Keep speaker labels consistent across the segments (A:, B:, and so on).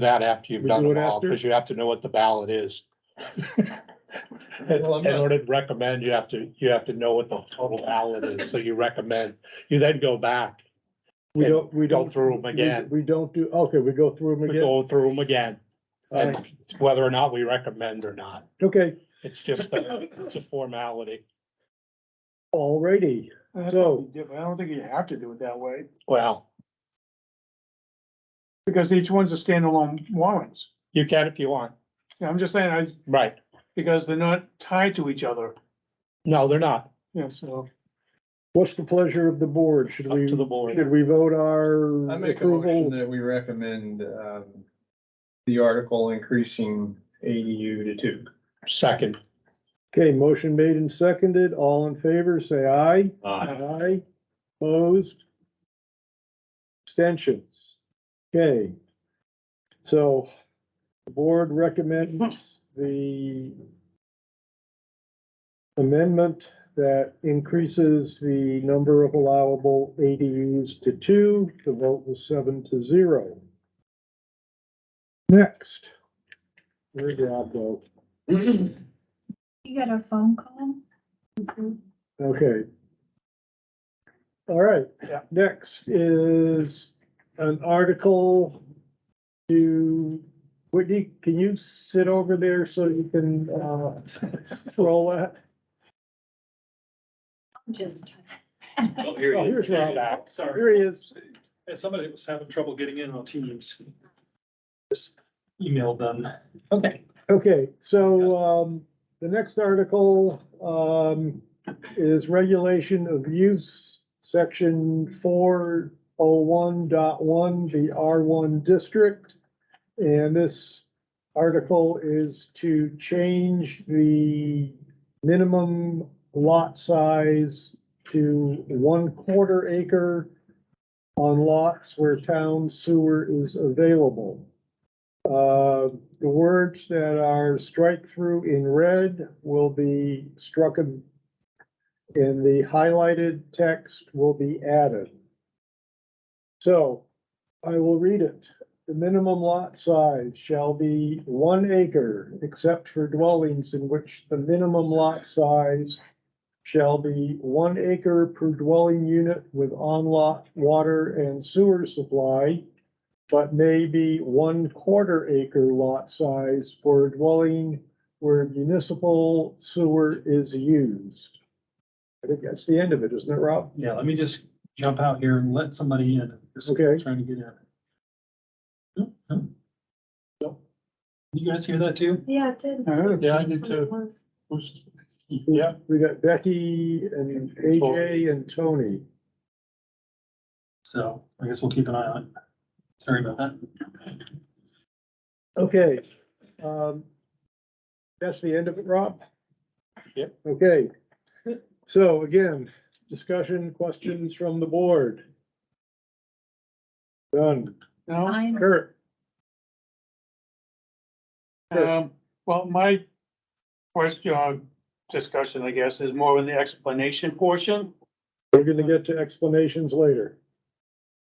A: that after you've
B: We
A: done
B: do it
A: them all,
B: after?
A: because you have to know what the ballot is. In
C: Well, I'm
A: in
C: not-
A: order to recommend, you have to, you have to know what the total ballot is, so you recommend, you then go back,
B: We
A: And
B: don't, we
A: go
B: don't.
A: through them
B: we-
A: again,
B: We don't do, okay, we go through them
A: we
B: again.
A: go through them again,
B: All right,
A: and whether or not we recommend or not,
B: Okay,
A: it's just, a- it's a formality.
B: alrighty.
C: That's
B: So-
C: something different. I don't think you have to do it that way,
A: Well,
C: because each one's a standalone warrants.
A: you can if you want,
C: Yeah, I'm just saying, I,
A: right,
C: because they're not tied to each other,
A: no, they're not,
C: yeah, so.
B: What's the pleasure of the board? Should
A: up
B: we,
A: to the
B: should
A: board,
B: we vote our
D: I make a motion
B: approval?
D: that we recommend, um, the article increasing ADU to two.
A: second,
B: Okay, motion made and seconded. All in favor, say aye. Aye. Opposed? Abstentions? Okay. So the board recommends the amendment that increases the number of allowable ADUs to two. The vote was seven to zero. Next. Where did I go?
E: You got a phone call?
B: Okay. All right,
A: Yeah.
B: next is an article to, Whitney, can you sit over there so you can, uh, roll that?
E: Just.
F: Oh, here
B: Oh,
F: he is.
B: here's Rob.
F: Oh, Sorry,
B: Here he is.
F: Yeah, somebody was having trouble getting in on Teams. Just emailed them. Okay.
B: Okay, so, um, the next article, um, is regulation of use, section four oh one dot one, the R one district. And this article is to change the minimum lot size to one quarter acre on lots where town sewer is available. Uh, the words that are strike through in red will be struck and and the highlighted text will be added. So I will read it. The minimum lot size shall be one acre, except for dwellings in which the minimum lot size shall be one acre per dwelling unit with on-lot water and sewer supply but maybe one quarter acre lot size for a dwelling where municipal sewer is used. I think that's the end of it, isn't it, Rob?
F: Yeah, let me just jump out here and let somebody in. Just
B: Okay.
F: Trying to get in. Nope, nope. Nope. You guys hear that too?
E: Yeah, it did.
A: yeah, I did too. Yeah,
B: We got Becky and AJ and Tony.
F: So I guess we'll keep an eye on it. Sorry about that.
B: Okay. um, That's the end of it, Rob?
A: Yep.
B: Okay. So again, discussion, questions from the board? Done.
C: No,
E: Mine,
B: Kurt?
C: um, well, my question, uh, discussion, I guess, is more in the explanation portion
B: We're gonna get to explanations later.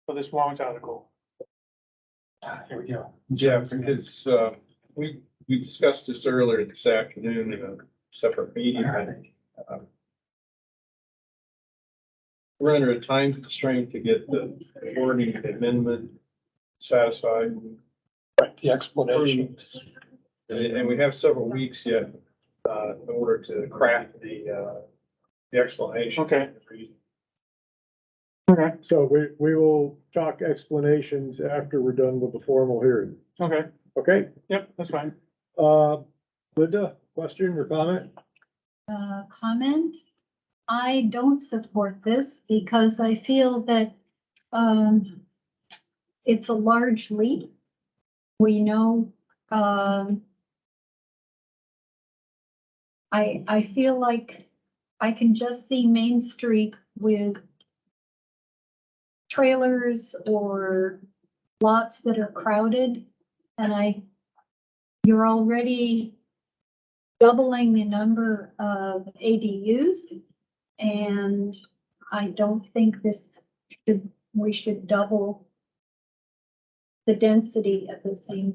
C: for this warrant article.
F: Ah, Here we go.
D: Yeah, because, uh, we, we discussed this earlier this afternoon in a separate meeting. I think. Um, We're under a time constraint to get the wording amendment satisfied.
A: right, the explanation,
D: And, and we have several weeks yet, uh, in order to craft the, uh, the explanation.
C: Okay.
B: So we, we will talk explanations after we're done with the formal hearing,
C: Okay,
B: okay?
C: yep, that's fine.
B: Uh, Linda, question or comment?
E: uh, comment. I don't support this because I feel that, um, it's a large leap. We know, um, I, I feel like I can just see Main Street with trailers or lots that are crowded. And I, you're already doubling the number of ADUs. And I don't think this should, we should double the density at the same